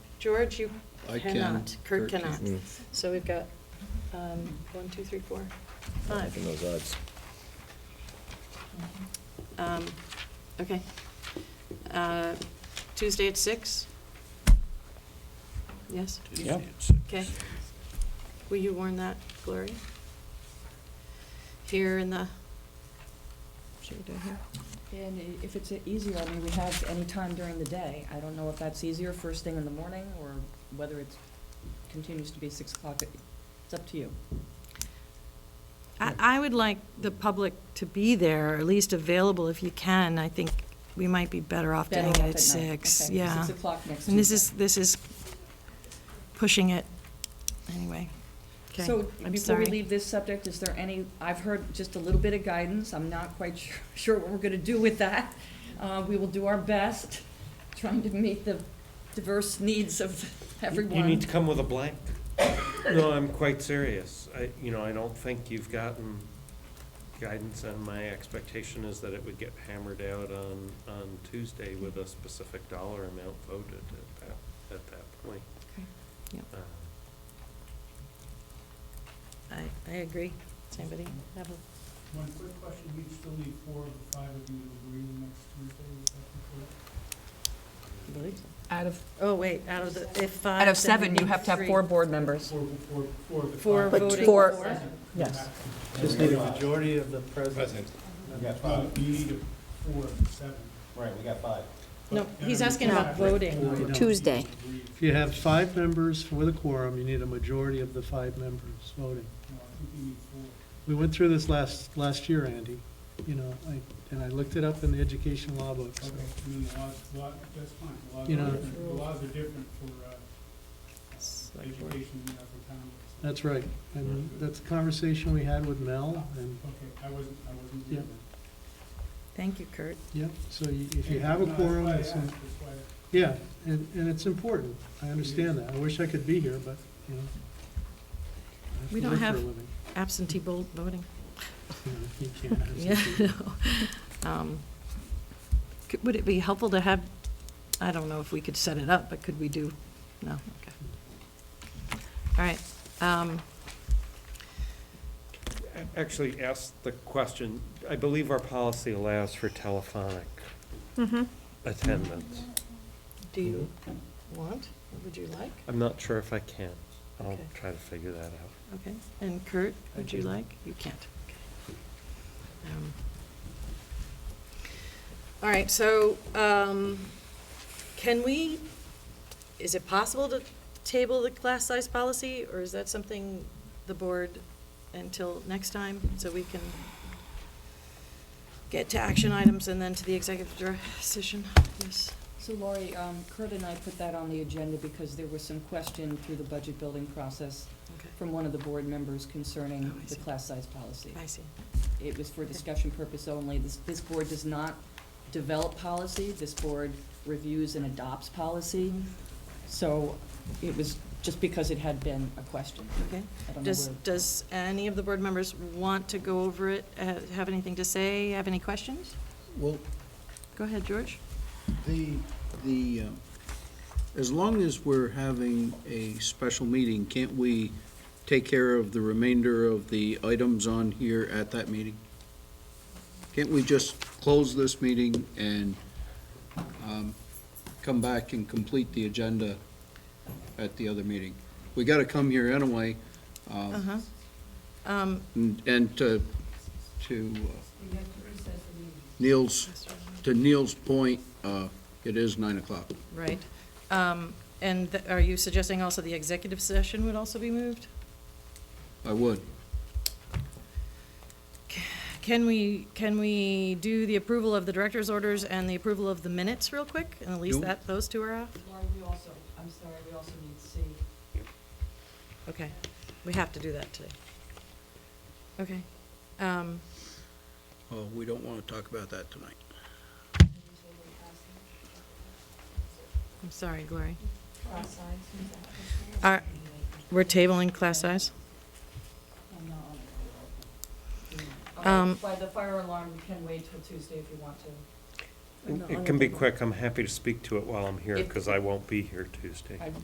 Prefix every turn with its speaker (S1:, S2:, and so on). S1: George, you
S2: I can,
S1: cannot. Kurt
S2: Kurt can.
S1: cannot.
S3: Mm.
S1: So we've got um, one, two, three, four, five.
S3: Liking those odds.
S1: Um, Okay. Uh, Tuesday at six? Yes?
S2: Yeah.
S1: Okay. Will you warn that, Gloria? Here in the, should we do it here?
S4: And i- if it's easier, I mean, we have any time during the day. I don't know if that's easier first thing in the morning or whether it continues to be six o'clock. It's up to you.
S5: I, I would like the public to be there, or at least available if you can. I think we might be better off
S4: Better
S5: doing it
S4: off
S5: at
S4: at night.
S5: six,
S4: Okay,
S5: yeah.
S4: six o'clock next
S5: And this
S4: Tuesday.
S5: is, this is pushing it, anyway. Okay,
S4: So
S5: I'm
S4: before
S5: sorry.
S4: we leave this subject, is there any, I've heard just a little bit of guidance. I'm not quite sure- sure what we're going to do with that. Uh, We will do our best, trying to meet the diverse needs of everyone.
S6: You need to come with a blank. No, I'm quite serious. I, you know, I don't think you've gotten guidance, and my expectation is that it would get hammered out on, on Tuesday with a specific dollar amount voted at that, at that point.
S5: Okay, yep.
S6: Uh,
S5: I, I agree. Does anybody have a,
S7: One quick question, we still need four of the five of you to agree next Tuesday, is that correct?
S4: Out of,
S5: oh, wait, out of the, if five.
S4: out of
S5: then we
S4: seven,
S5: need
S4: you have to have
S5: three.
S4: four board members.
S7: Four, four, four of the five.
S1: Four
S5: But
S1: voting.
S4: four-
S7: Yes.
S8: Just need a majority of the present.
S3: Present.
S8: We got five.
S7: You need a four of the seven.
S8: Right, we got five.
S1: No,
S7: But
S1: he's
S7: every
S1: asking about
S7: five, right,
S1: voting.
S7: four of you
S9: Tuesday.
S7: agree.
S8: If you have five members for the quorum, you need a majority of the five members voting.
S7: No, I think you need four.
S8: We went through this last, last year, Andy, you know, I, and I looked it up in the education law book. so-
S7: Okay, I mean, the laws, law, that's fine, the laws
S8: You
S7: are
S8: know-
S7: different, the laws are different for, uh,
S1: Select board.
S7: education than for town. so-
S8: That's right, and that's a conversation we had with Mel, and,
S7: Okay, I wasn't, I wasn't
S8: Yeah.
S7: here then.
S5: Thank you, Kurt.
S8: yeah, so you- if you have
S7: No,
S8: a
S7: that's
S8: quorum,
S7: why I
S8: it's,
S7: asked, that's why I-
S8: yeah, and, and it's important, I understand that, I wish I could be here, but, you know. I
S5: We
S8: to
S5: don't
S8: work for a
S5: have-
S8: living,
S5: Absentee bo- voting.
S8: you know, You can't have
S5: Yeah.
S8: something-
S5: no. Um, could- Would it be helpful to have, I don't know if we could set it up, but could we do, no, okay. All right, um,
S6: a- Actually, ask the question, I believe our policy allows for telephonic
S1: Mm-hmm.
S6: attendance.
S1: Do you want, or would you like?
S6: I'm not sure if I can. I'll
S1: Okay.
S6: try to figure that out.
S1: Okay, and Kurt, would you
S8: do.
S1: like? You can't. Okay. Um, All right, so um, can we, is it possible to table the class size policy? Or is that something the board until next time, so we can get to action items and then to the executive dir- session? Yes.
S4: So Lori, um, Kurt and I put that on the agenda because there was some question through the budget building process
S1: Okay.
S4: from one of the board members concerning
S1: Oh, I
S4: the
S1: see.
S4: class size policy.
S1: I see.
S4: It was for
S1: Okay.
S4: discussion purpose only. This, this board does not develop policy. This board reviews and adopts policy.
S1: Mm-hmm.
S4: So it was just because it had been a question.
S1: Okay.
S4: I don't know
S1: Does,
S4: where-
S1: does any of the board members want to go over it, uh, have anything to say, have any questions?
S2: Well,
S1: Go ahead, George.
S2: the, the, um, as long as we're having a special meeting, can't we take care of the remainder of the items on here at that meeting? Can't we just close this meeting and um, come back and complete the agenda at the other meeting? We got to come here anyway, um,
S1: Uh-huh. Um,
S2: and and to, to uh, Neil's to Neil's point, uh, it is nine o'clock.
S1: right. Um, and th- are you suggesting also the executive session would also be moved?
S2: I would.
S1: Can we, can we do the approval of the director's orders and the approval of the minutes real quick? And at least
S2: Nope.
S1: that, those two are off?
S4: Laura, we also, I'm sorry, we also need to see.
S1: Okay, we have to do that today. Okay. Um,
S2: Oh, we don't want to talk about that tonight.
S1: I'm sorry, Glory. Are, we're tabling class size? Um,
S4: By the fire alarm, you can wait till Tuesday if you want to.
S6: It can be quick. I'm happy to speak to it while I'm here, because I won't be here Tuesday.
S4: I